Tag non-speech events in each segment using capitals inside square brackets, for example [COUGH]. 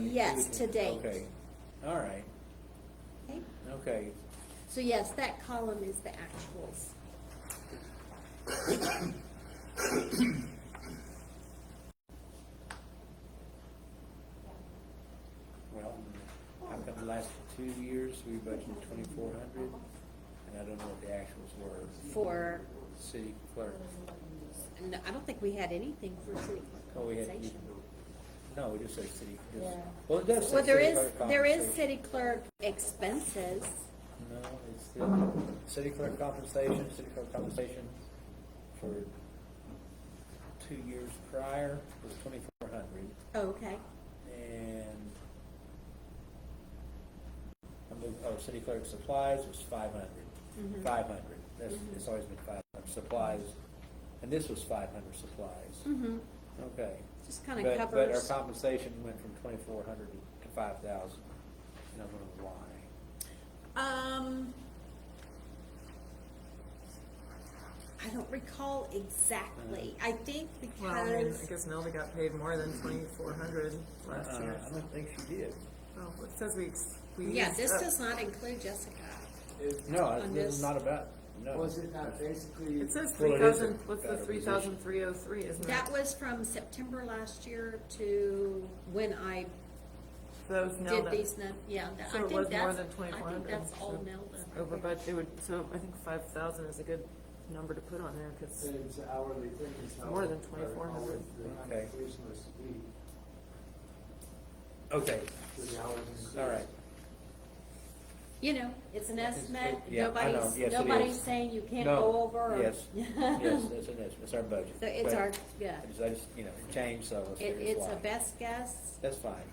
Yes, to date. Okay, all right, Okay? okay. So yes, that column is the actuals. Well, how come the last two years we budgeted twenty-four hundred? And I don't know what the actuals were. For, City clerk, no, I don't think we had anything for city oh, we had, compensation. no, it just says city. just- Yeah. Well, it does say Well, there city is, clerk there is compensation. city clerk expenses. No, it's still, city clerk compensation, city clerk compensation for two years prior was twenty-four hundred, Oh, Okay, and I moved, oh, city clerk supplies was five Mm-hmm. hundred, five hundred, that's, it's always been five hundred, supplies, and this was five hundred supplies, mm-hmm, okay. just kind of But- But our covers. compensation went from twenty-four hundred to five thousand, and I don't know why. Um, I don't recall exactly. Mm-hmm. I think Well, I mean, I because, guess Melda got paid more than twenty-four hundred last Uh-uh, year. I don't think she did. Well, it says we, ex- we. yeah, used this up- does not include Jessica. It- No, On this is this- not about, no. Was it not basically? It says Well, three it is thousand, a what's the better three thousand three oh three, isn't it? That was from September last year to when I Those did Nelda, these, num- yeah, that- So I it was think more that's, than I think 2,400, that's all so Nelda. over budget, it would, so I think five thousand is a good number to put on there, cause, It's an hourly thing. it's how- More than 2,400. The Okay. compensation was to be, Okay, to the hours. increased. all right. You know, it's an estimate, Yeah, I know. nobody's, Yes, it nobody's is. saying you can't No. go over. or- [LAUGHS] Yes, yes, that's an issue, it's our budget. So it's But our, yeah, I just- I just, you know, it changed, so it's, it, it's it's a why. best guess. That's fine.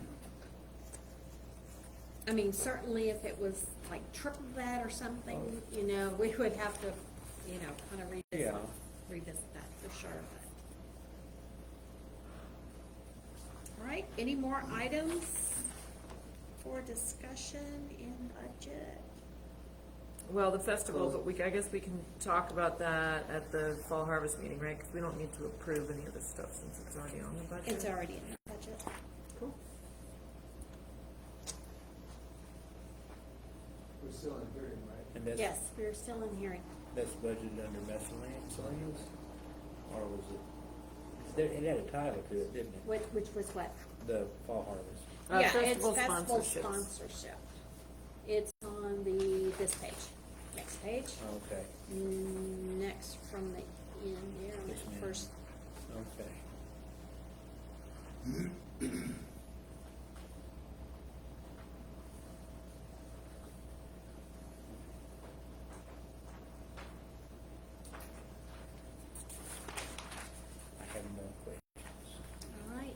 I mean, certainly if it was like triple that or something, Oh. you know, we would have to, you know, kind of revisit, Yeah. revisit that for sure. but- All right, any more items for discussion in budget? well, the festival, Well- but we, I guess we can talk about that at the fall harvest meeting, right? Cause we don't need to approve any of this stuff since it's already on the budget. It's already in the budget. Cool. We're still in hearing, right? And that's, Yes, we're still in hearing. that's budgeted under miscellaneous, or was it? There, it had a title to it, didn't it? Which, which was what? The fall harvest. Uh, Yeah, it's festival festival sponsorships. sponsorship. It's on the, this page, next page, Okay, Oh. next from the end there, on Yes, ma'am. that first, okay. I have no questions. all right.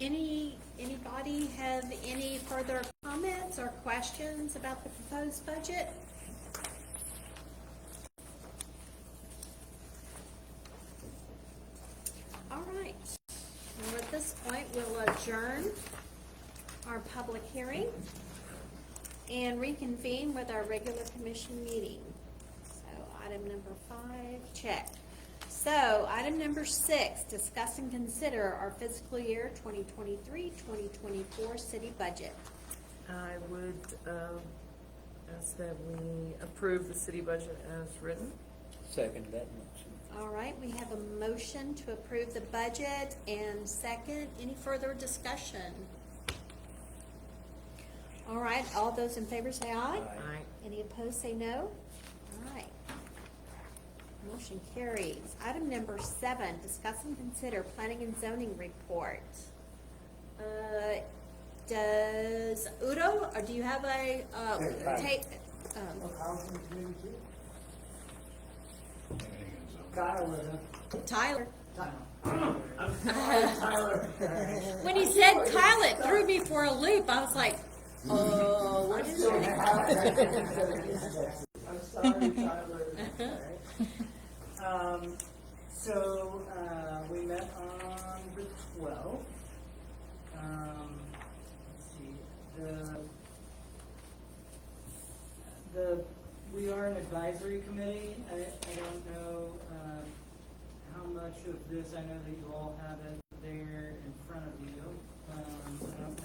Any, anybody have any further comments or questions about the proposed budget? All right, well, at this point, we'll adjourn our public hearing and reconvene with our regular commission meeting. So item number five, check. So item number six, discuss and consider our fiscal year 2023, 2024 city budget. I would um, ask that we approve the city budget as written. Second that motion. All right, we have a motion to approve the budget and second, any further discussion? All right, all those in favor say aye. Aye. Any opposed, say no. All right. Motion carries. Item number seven, discuss and consider planning and zoning report. Uh, Does Udo, or do you have a, uh, Yeah, tape? Well, Housing committee too? Tyler? I'm sorry, Tyler. um, [LAUGHS] When he said Tyler, it threw me for a loop. I was like, oh, what is your name? I'm sorry, Tyler. Um, so, uh, we met on the twelfth. Um, let's see, the, the, we are an advisory committee. I, I don't know, uh, how much of this, I know that you all have it there in front of you. Um, I don't know